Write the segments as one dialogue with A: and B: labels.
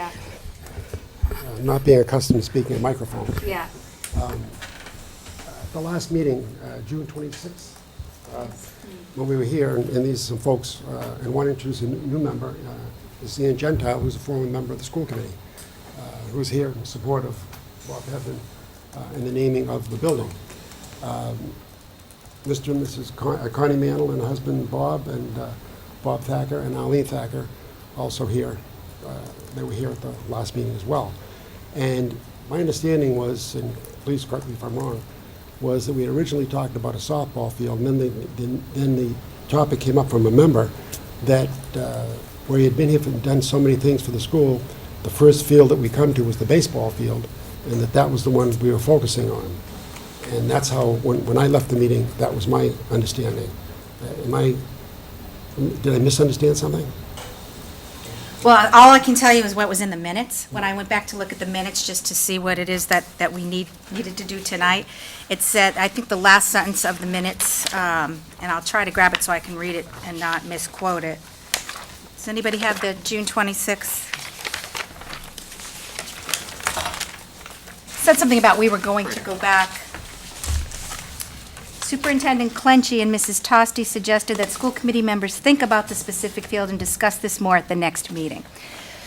A: Uh, not being accustomed to speaking at microphone.
B: Yeah,
A: At The last meeting, uh, June 26th, uh, when we were here, and and these some folks, uh, and one introduced a new new member, uh, is Ian Gentile, who's a former member of the school committee, uh, who's here in support of Bob Heflin uh, and the naming of the building. Mr. and Mrs. Con- uh, Connie Mantle and husband Bob and uh, Bob Thacker and Eileen Thacker also here. Uh, They were here at the last meeting as well. And my understanding was, and please correct me if I'm wrong, was that we had originally talked about a softball field, and then the, then- then the topic came up from a member that uh, where he had been here and done so many things for the school, the first field that we come to was the baseball field, and that that was the one we were focusing on. And that's how, when, when I left the meeting, that was my understanding. Uh, Am I, did I misunderstand something?
B: well, all I can tell you is what was in the minutes. When I went back to look at the minutes, just to see what it is that, that we need, needed to do tonight, it said, I think the last sentence of the minutes, um, and I'll try to grab it so I can read it and not misquote it. Does anybody have the June 26th? Said something about we were going to go back. Superintendent Clenchey and Mrs. Tosti suggested that school committee members think about the specific field and discuss this more at the next meeting.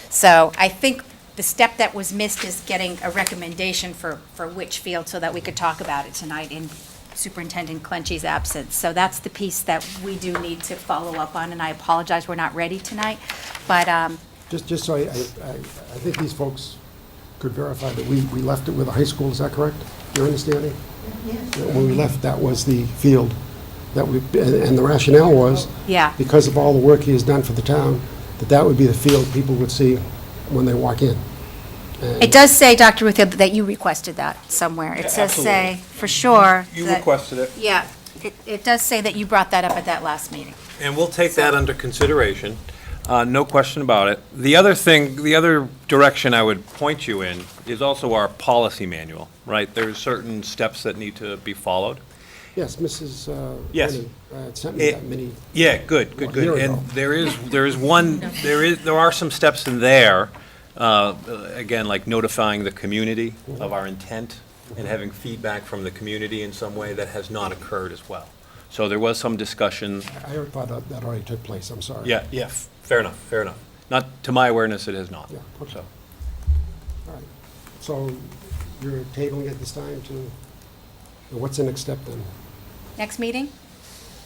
B: So I think the step that was missed is getting a recommendation for, for which field so that we could talk about it tonight in Superintendent Clenchey's absence. So that's the piece that we do need to follow up on, and I apologize, we're not ready tonight. But, um,
A: Just, just so I, I, I I think these folks could verify that we, we left it with a high school, is that correct? Your understanding? That When we left, that was the field that we, and and the rationale was.
B: Yeah.
A: Because of all the work he has done for the town, that that would be the field people would see when they walk in.
B: it does say, Dr. Ruth, that you requested that somewhere. It
C: Yeah,
B: says, say,
C: absolutely.
B: for sure.
C: You
B: that-
C: requested it,
B: Yeah, it, it does say that you brought that up at that last meeting.
C: and we'll take that under consideration, uh, no question about it. The other thing, the other direction I would point you in is also our policy manual, right? There's certain steps that need to be followed.
A: Yes, Mrs. uh,
C: Yes.
A: Rennie, uh, sent me
C: It-
A: that many
C: Yeah, good, good,
A: Well, here
C: good.
A: we go.
C: And there is, there is one, there is, there are some steps in there, uh, again, like notifying the community of our intent and having feedback from the community in some way that has not occurred as well. So there was some discussion
A: I already thought that that already took place, I'm sorry.
C: Yeah, yeah, f- fair enough, fair enough. Not, to my awareness, it has not,
A: Yeah, okay.
C: so.
A: All right. So you're tabling at this time to, what's the next step then?
B: Next meeting?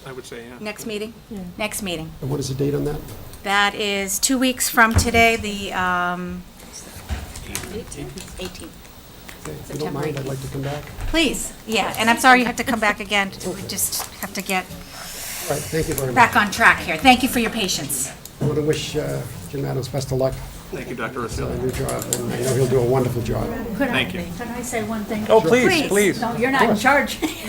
D: I would say, yeah.
B: Next meeting? Next meeting.
A: And what is the date on that?
B: That is two weeks from today, the, um, 18th.
A: Okay, If you don't mind, I'd like to come back.
B: Please, yeah, and I'm sorry you have to come back again. We just have to get
A: All right, thank you very much.
B: back on track here. Thank you for your patience.
A: I want to wish uh, Jim Adams best of luck
D: Thank you, Dr.
A: on
D: Rosillo.
A: the new job, and I know he'll do a wonderful job.
D: Thank you.
E: Can I say one thing?
C: Oh, please, please.
E: No, you're not in charge. He's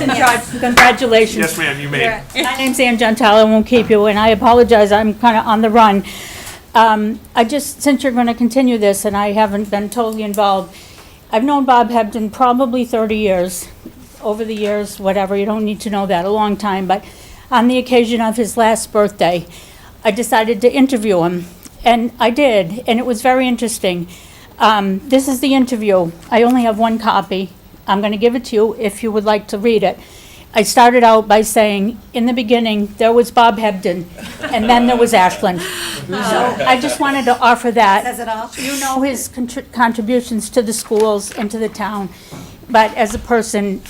E: in charge. Congratulations.
D: Yes, ma'am, you may.
E: My name's Ann Gentile, I won't keep you, and I apologize, I'm kind of on the run. Um, I just, since you're going to continue this, and I haven't been totally involved, I've known Bob Hebden probably 30 years, over the years, whatever, you don't need to know that, a long time, but on the occasion of his last birthday, I decided to interview him, and I did, and it was very interesting. Um, This is the interview. I only have one copy. I'm going to give it to you if you would like to read it. I started out by saying, in the beginning, there was Bob Hebden, and then there was Ashland. So I just wanted to offer that.
B: Says it all.
E: You know his contr- contributions to the schools and to the town, but as a person,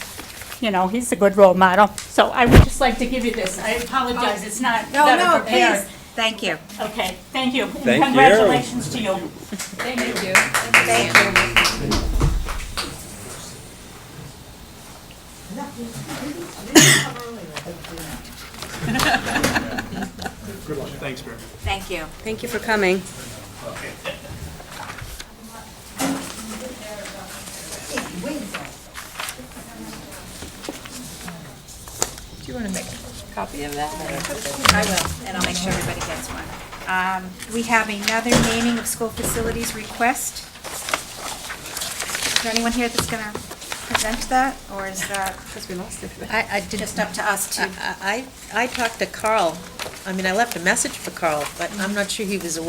E: you know, he's a good role model. So I would just like to give you this. I apologize, it's not
B: No,
E: better
B: no,
E: prepared.
B: please, thank you.
E: Okay, thank you. and
C: Thank you.
E: Congratulations to you.
D: Thanks, ma'am.
B: Thank you.
F: Thank you for coming.
G: Do you want to make a copy of that?
B: I will, and I'll make sure everybody gets one. Um, We have another naming of school facilities request. Is there anyone here that's going to present that, or is that
G: Because we lost it. I,
B: I did Just up to us to
G: I, I talked to Carl, I mean, I left a message for Carl, but I'm not sure he was aware